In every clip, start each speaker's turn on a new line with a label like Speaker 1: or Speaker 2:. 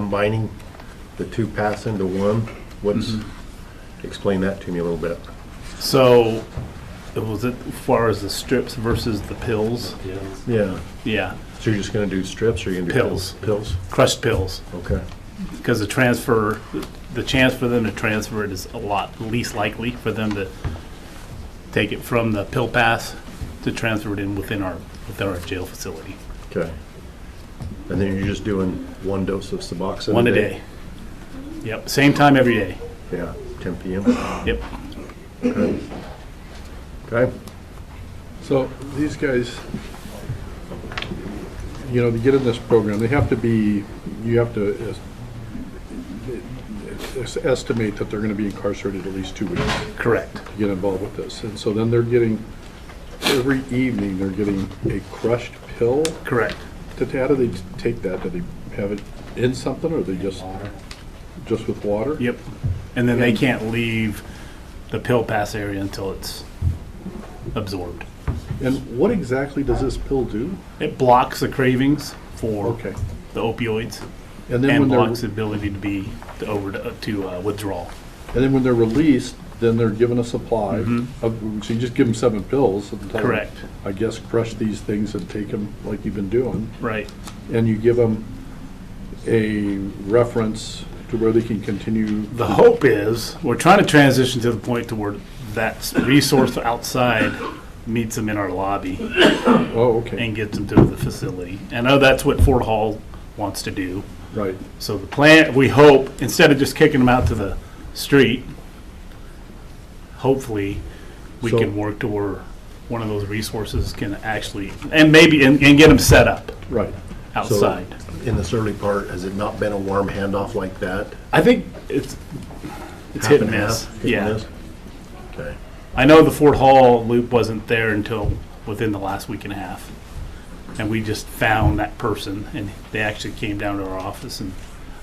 Speaker 1: combining the two paths into one? What's,
Speaker 2: Mm-hmm.
Speaker 1: explain that to me a little bit.
Speaker 2: So, it was it as far as the strips versus the pills?
Speaker 1: Yeah.
Speaker 2: Yeah,
Speaker 1: So you're just gonna do strips, or you're gonna do?
Speaker 2: Pills.
Speaker 1: Pills,
Speaker 2: crushed pills.
Speaker 1: okay.
Speaker 2: Because the transfer, the chance for them to transfer it is a lot least likely for them to take it from the pill pass to transfer it in within our, within our jail facility.
Speaker 1: Okay. And then you're just doing one dose of Suboxone?
Speaker 2: One a day. Yep, same time every day.
Speaker 1: Yeah, 10 PM.
Speaker 2: Yep.
Speaker 1: Okay,
Speaker 3: So these guys, you know, to get in this program, they have to be, you have to es- es- estimate that they're going to be incarcerated at least two weeks to
Speaker 2: Correct.
Speaker 3: get involved with this. And so then they're getting, every evening, they're getting a crushed pill.
Speaker 2: Correct.
Speaker 3: Did- How do they take that? Do they have it in something or they just, just with water?
Speaker 2: Yep. And then they can't leave the pill pass area until it's absorbed.
Speaker 3: And what exactly does this pill do?
Speaker 2: It blocks the cravings for
Speaker 3: Okay.
Speaker 2: the opioids
Speaker 3: And then
Speaker 2: and
Speaker 3: when they're
Speaker 2: blocks the ability to be to over to uh, withdrawal.
Speaker 3: And then when they're released, then they're given a supply. of- So you just give them seven pills. and tell 'em,
Speaker 2: Correct.
Speaker 3: I guess crush these things and take them like you've been doing.
Speaker 2: Right.
Speaker 3: And you give them a reference to where they can continue.
Speaker 2: The hope is we're trying to transition to the point to where that s- resource outside meets them in our lobby
Speaker 3: Oh, okay,
Speaker 2: and gets them to the facility. I know that's what Fort Hall wants to do.
Speaker 3: right.
Speaker 2: So the plan, we hope, instead of just kicking them out to the street, hopefully, we
Speaker 3: So-
Speaker 2: can work to where one of those resources can actually, and maybe, and, and get them set up
Speaker 3: Right.
Speaker 2: outside.
Speaker 1: in this early part, has it not been a warm handoff like that?
Speaker 2: I think it's, it's hit and miss.
Speaker 1: Half and half, hit and
Speaker 2: Yeah.
Speaker 1: miss? Okay,
Speaker 2: I know the Fort Hall loop wasn't there until within the last week and a half. And we just found that person and they actually came down to our office and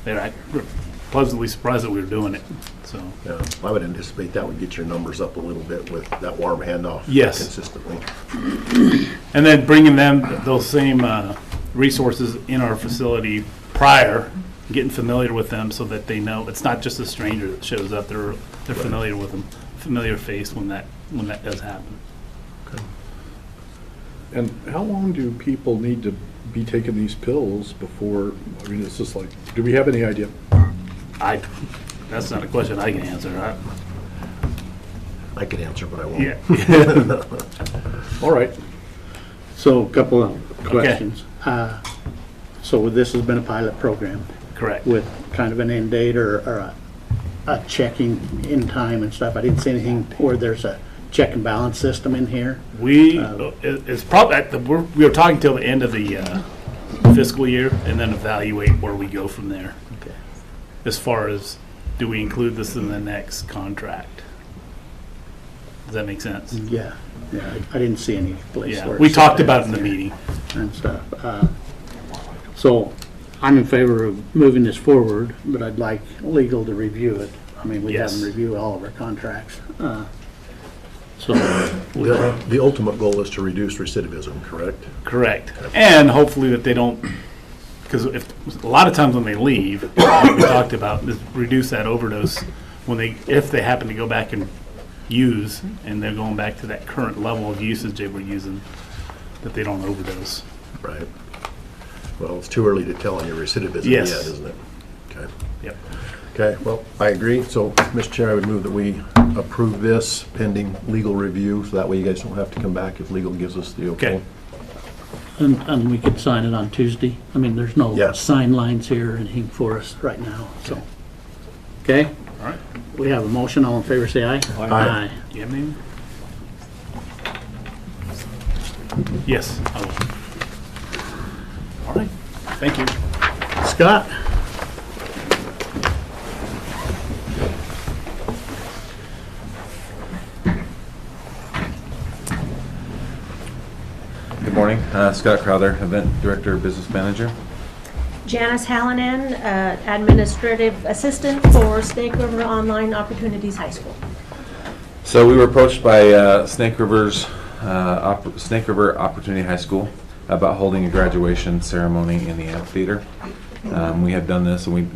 Speaker 2: they're I- we're pleasantly surprised that we were doing it, so.
Speaker 1: yeah, I would anticipate that would get your numbers up a little bit with that warm handoff.
Speaker 2: Yes.
Speaker 1: Consistently.
Speaker 2: And then bringing them, those same uh, resources in our facility prior, getting familiar with them so that they know, it's not just a stranger that shows up, they're, they're familiar with them, familiar face when that, when that does happen.
Speaker 3: And how long do people need to be taking these pills before, I mean, it's just like, do we have any idea?
Speaker 2: I, that's not a question I can answer, I,
Speaker 1: I could answer, but I won't.
Speaker 2: yeah.
Speaker 3: All right.
Speaker 4: So a couple of questions. Uh, So this has been a pilot program
Speaker 2: Correct.
Speaker 4: with kind of an end date or, or a- a checking in time and stuff. I didn't see anything where there's a check and balance system in here.
Speaker 2: We, it- it's probably, we're, we were talking till the end of the uh, fiscal year and then evaluate where we go from there.
Speaker 4: Okay.
Speaker 2: As far as, do we include this in the next contract? Does that make sense?
Speaker 4: Yeah, yeah, I- I didn't see any place
Speaker 2: Mm-hmm. Yeah,
Speaker 4: where.
Speaker 2: we
Speaker 4: it's
Speaker 2: talked
Speaker 4: set
Speaker 2: about it
Speaker 4: out
Speaker 2: in the
Speaker 4: there
Speaker 2: meeting.
Speaker 4: And stuff. Uh, So I'm in favor of moving this forward, but I'd like legal to review it. I mean, we have
Speaker 2: Yes.
Speaker 4: them review all of our contracts. Uh, So
Speaker 1: The the ultimate goal is to reduce recidivism, correct?
Speaker 2: Correct. And hopefully that they don't, because if, a lot of times when they leave, like we talked about, is reduce that overdose when they, if they happen to go back and use, and they're going back to that current level of usage they were using, that they don't overdose.
Speaker 1: Right. Well, it's too early to tell on your recidivism yet,
Speaker 2: Yes.
Speaker 1: isn't it? Okay.
Speaker 2: Yep.
Speaker 1: Okay, well, I agree. So, Mr. Chair, I would move that we approve this pending legal review, so that way you guys don't have to come back if legal gives us the okay.
Speaker 2: Okay.
Speaker 4: And, and we could sign it on Tuesday. I mean, there's no
Speaker 1: Yes.
Speaker 4: sign lines here or anything for us right now, so. Okay,
Speaker 2: All right.
Speaker 4: we have a motion. All in favor, say aye.
Speaker 1: Aye.
Speaker 2: You have anything? Yes, I will. All right. Thank you.
Speaker 4: Aye. Scott?
Speaker 5: Good morning, Uh, Scott Crowther, Event Director, Business Manager.
Speaker 6: Janice Hallinan, uh, Administrative Assistant for Snake River Online Opportunities High School.
Speaker 5: So we were approached by uh, Snake River's, uh, Oppor- Snake River Opportunity High School about holding a graduation ceremony in the amphitheater. Um, We have done this, and we